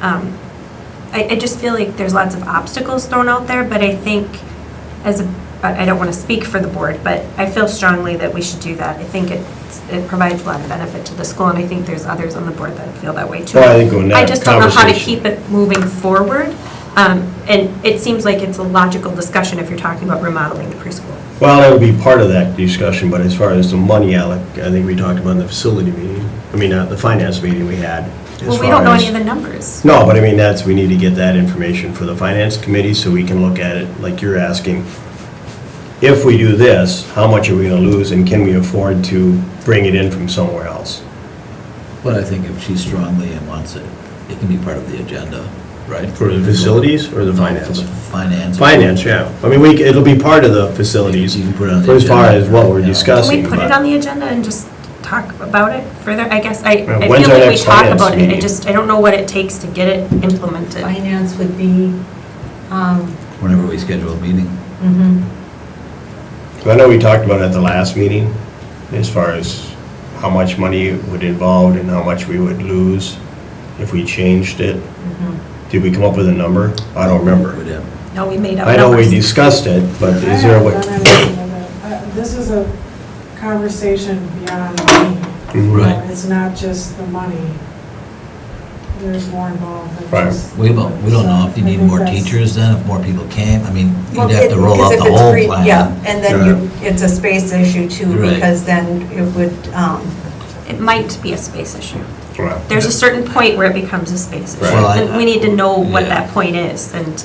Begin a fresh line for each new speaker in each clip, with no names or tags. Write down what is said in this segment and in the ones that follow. Um, I, I just feel like there's lots of obstacles thrown out there, but I think as, a- I I don't want to speak for the board, but I feel strongly that we should do that. I think it's- it provides a lot of benefit to the school, and I think there's others on the board that feel that way too.
Well, I think when that
just don't know how to
conversation-
keep it moving forward, Um, and it seems like it's a logical discussion if you're talking about remodeling the preschool.
Well, that would be part of that discussion, but as far as the money, Alec, I think we talked about in the facility meeting, I mean, uh, the finance meeting we had. as
Well, we don't know
far as-
any of the numbers.
No, but I mean, that's, we need to get that information for the finance committee so we can look at it like you're asking. If we do this, how much are we gonna lose and can we afford to bring it in from somewhere else?
But I think if she strongly and wants it, it can be part of the agenda, right?
For the facilities or the
No,
finance?
For the finance.
Finance, yeah. I mean, we, c- it'll be part of the facilities
You can put it on the
as far
agenda.
as what we're
Yeah.
Can
discussing.
we put
but-
it on the agenda and just talk about it further? I guess I,
Well,
I
when's
feel
our
like we
next
talk
finance
about it, I
meeting?
just, I don't know what it takes to get it implemented.
Finance would be, um,
Whenever we schedule a meeting.
mhm.
I know we talked about it at the last meeting, as far as how much money it would involve and how much we would lose if we changed it. Did we come up with a number? I don't
We'd
remember.
have-
Mm-hmm. No, we made up
I know we
numbers.
discussed it, but is there a way?
I have none idea of that. Uh, This is a conversation beyond money. Uh,
Mhm.
Right.
It's not just the money. There's more involved than
Right.
just.
We don't, we don't know if you
So, I
need
think
more
that's-
teachers then, if more people came, I mean,
Well,
you'd have to
it-
roll
because
out
if
the
it's
whole
free-
plan.
Yeah, and then you, it's a space issue too,
Right.
because then it would, um,
It might be a space issue.
Well,
There's a certain point where it becomes a space issue.
Right. Well,
I-
And we need to know what
Yeah.
that point is and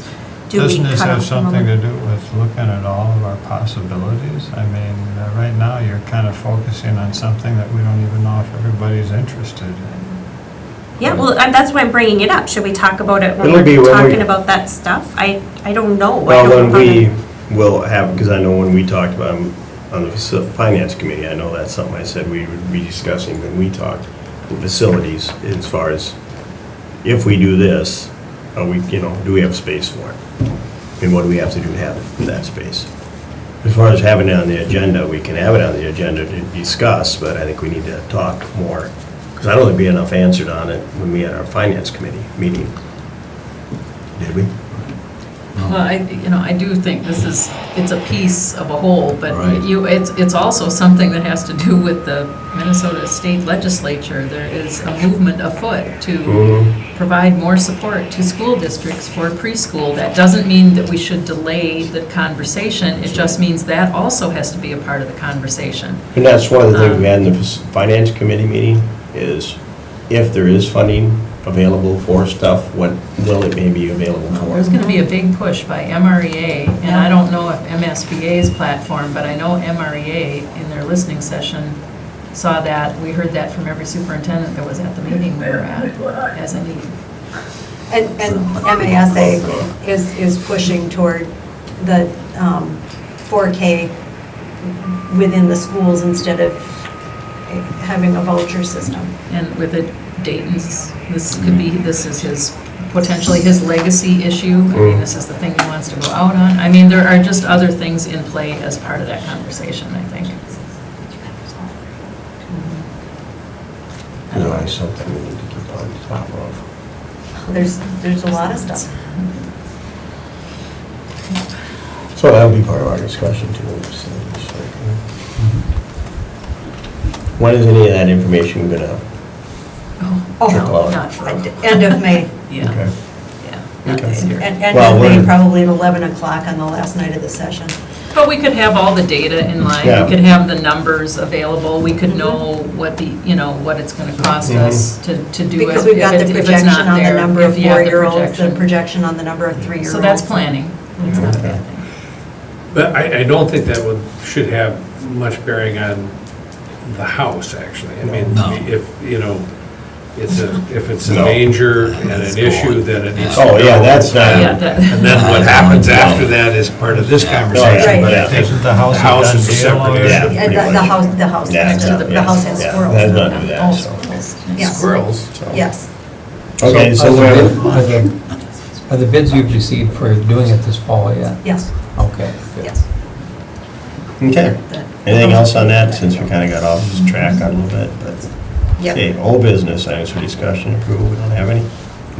do we
Doesn't this
cut
have
off the
something to
moment?
do with looking at all of our possibilities? I mean, uh, right now, you're kind of focusing on something that we don't even know if everybody's interested in.
Yeah, well, and that's why I'm bringing it up. Should we talk about it when
It'll be
we're
when we-
talking about that stuff? I, I don't know. I
Well,
don't know
when
how to-
we will have, because I know when we talked about, um, on the faci- finance committee, I know that's something I said we would be discussing when we talked, the facilities, as far as, if we do this, are we, you know, do we have space for it? And what do we have to do to have that space? As far as having it on the agenda, we can have it on the agenda to discuss, but I think we need to talk more. Because I don't think we had enough answered on it when we had our finance committee meeting. Did we?
No.
Well, I, you know, I do think this is, it's a piece of a whole,
Right.
but you, it's, it's also something that has to do with the Minnesota State Legislature. There is a movement afoot to
Mhm.
provide more support to school districts for preschool. That doesn't mean that we should delay the conversation, it just means that also has to be a part of the conversation.
And that's one of the things we
Um,
had in the f- finance committee meeting, is if there is funding available for stuff, what will it may be available
There's
for?
going to be a big push by MREA, and I don't know if MSBA's platform, but I know MREA in their listening session saw that, we heard that from every superintendent that was at the meeting we were at, as a need.
and, and MASA is, is pushing toward the um, 4K within the schools instead of having a voucher system.
And with it, Dayton's, this could be, this is his, potentially his legacy issue. I mean, this is the thing he wants to go out on. I mean, there are just other things in play as part of that conversation, I think.
You know, it's something we need to keep on top of.
There's, there's a lot of stuff.
So that'll be part of our discussion too. we'll just, uh, just like, uh,
Mm-hmm.
When is any of that information gonna?
Oh,
Oh.
no, not for,
End of May,
yeah, yeah, not this
Okay.
year.
and end
Well,
of May,
we're-
probably at 11 o'clock on the last night of the session.
But we could have all the data in line,
Yeah.
we could have the numbers available, we
Mm-hmm.
could know what the, you know, what it's gonna cost
Mm-hmm.
us to, to do it.
Because we've
if
got
it-
the
if it's
projection
not
on the
there,
number of
if you have the
four-year-olds, the
projection.
projection on the number of three-year-olds.
So that's planning, it's not a bad thing.
But I, I don't think that would, should have much bearing on the house, actually. I mean,
No.
if, you know, it's a, if it's a
No.
danger and
It's
an
going.
issue, then it needs to go.
Oh, yeah, that's
Yeah,
not,
that-
Um, And then what happens after that is part of this
Right.
conversation, but I
Right.
think
Isn't
the
the house a
house
done
is a
deal
separate
already?
Yeah.
issue.
And the the house, the house,
Yeah,
the
yeah,
the house has
yeah.
squirrels.
Let's not do that,
Oh,
so.
squirrels.
Yes.
Squirrels.
Yes.
okay, so
Oh,
Are the bid-
we're,
Are the- are the bids you've received for doing it this fall yet?
Yes,
Okay. good.
yes.
okay. Anything else on that, since we kinda got off track a little bit, but.
Yep.
Okay, old business, items for discussion, approval, we don't have any.